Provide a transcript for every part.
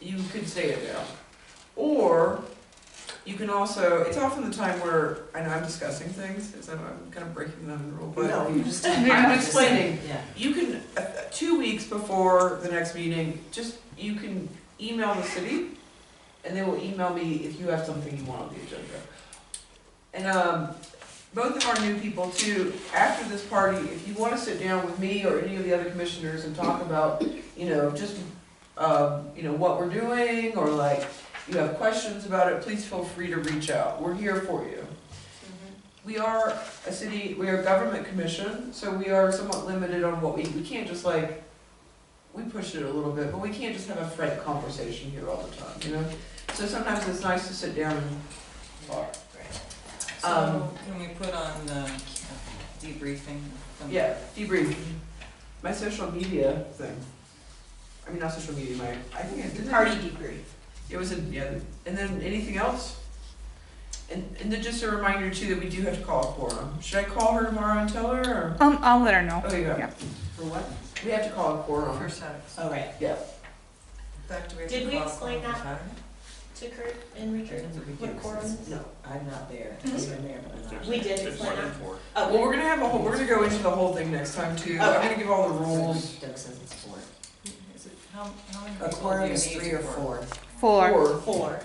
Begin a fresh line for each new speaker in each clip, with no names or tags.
you could stay in jail. Or you can also, it's often the time where, I know I'm discussing things, because I'm, I'm kind of breaking the rule, but
No, you just.
I'm explaining.
Yeah.
You can, uh, uh, two weeks before the next meeting, just, you can email the city, and they will email me if you have something you want on the agenda. And, um, both of our new people too, after this party, if you wanna sit down with me or any of the other commissioners and talk about, you know, just, um, you know, what we're doing, or like, you have questions about it, please feel free to reach out, we're here for you. We are a city, we are a government commission, so we are somewhat limited on what we, we can't just like, we push it a little bit, but we can't just have a frank conversation here all the time, you know? So sometimes it's nice to sit down and talk.
So can we put on the debriefing? from-
Yeah, debrief. My social media thing. I mean, not social media, my, I think I did that.
Party debrief.
It was in, yeah, and then anything else? And, and then just a reminder too that we do have to call a quorum. Should I call her tomorrow and tell her or?
Um, I'll let her know.
Oh, yeah.
Yeah.
For what?
We have to call a quorum.
For Saturdays.
Oh, right.
Yeah.
In fact, do we have
Did
to
we
call
explain
for
that?
Saturday?
To Kurt and Richard,
That's what we
what
do,
quorum
since-
is?
No, I'm not there. I'm in there, but I'm not.
We did
It's
explain
one in
that. Oh,
four.
Well,
Okay,
we're gonna have a whole, we're gonna go into the whole thing next time too. I'm gonna give all the rules.
Doug says it's four.
Is it, how, how many
A
people do
quorum
you
is
need
three or
for-
four,
Four.
Or-
four,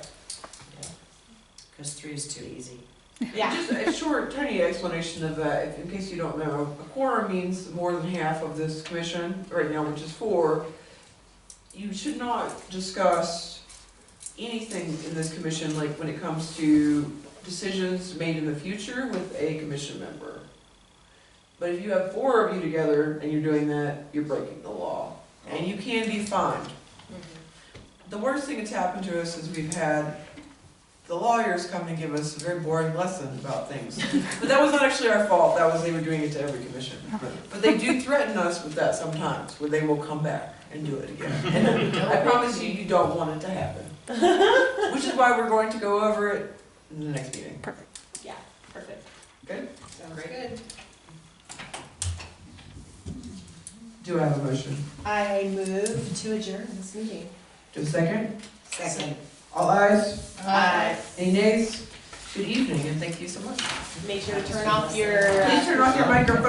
because three is too easy.
yeah.
Just a short, tiny explanation of that, if- in case you don't know. A quorum means more than half of this commission, right now, which is four. You should not discuss anything in this commission, like when it comes to decisions made in the future with a commission member. But if you have four of you together and you're doing that, you're breaking the law, and you can be fined.
Mm-hmm.
The worst thing that's happened to us is we've had the lawyers come and give us a very boring lesson about things. But that was not actually our fault, that was, they were doing it to every commission. But they do threaten us with that sometimes, where they will come back and do it again. And I promise you, you don't want it to happen. Which is why we're going to go over it in the next meeting.
Perfect.
Perfect.
Good.
Sounds
Great.
good.
Do I have a motion?
I move to adjourn this meeting.
Do a second?
Second.
All ayes?
Uh,
Any nays? Good evening, and thank you so much.
make sure to turn off your. uh,
Please turn off your microphone.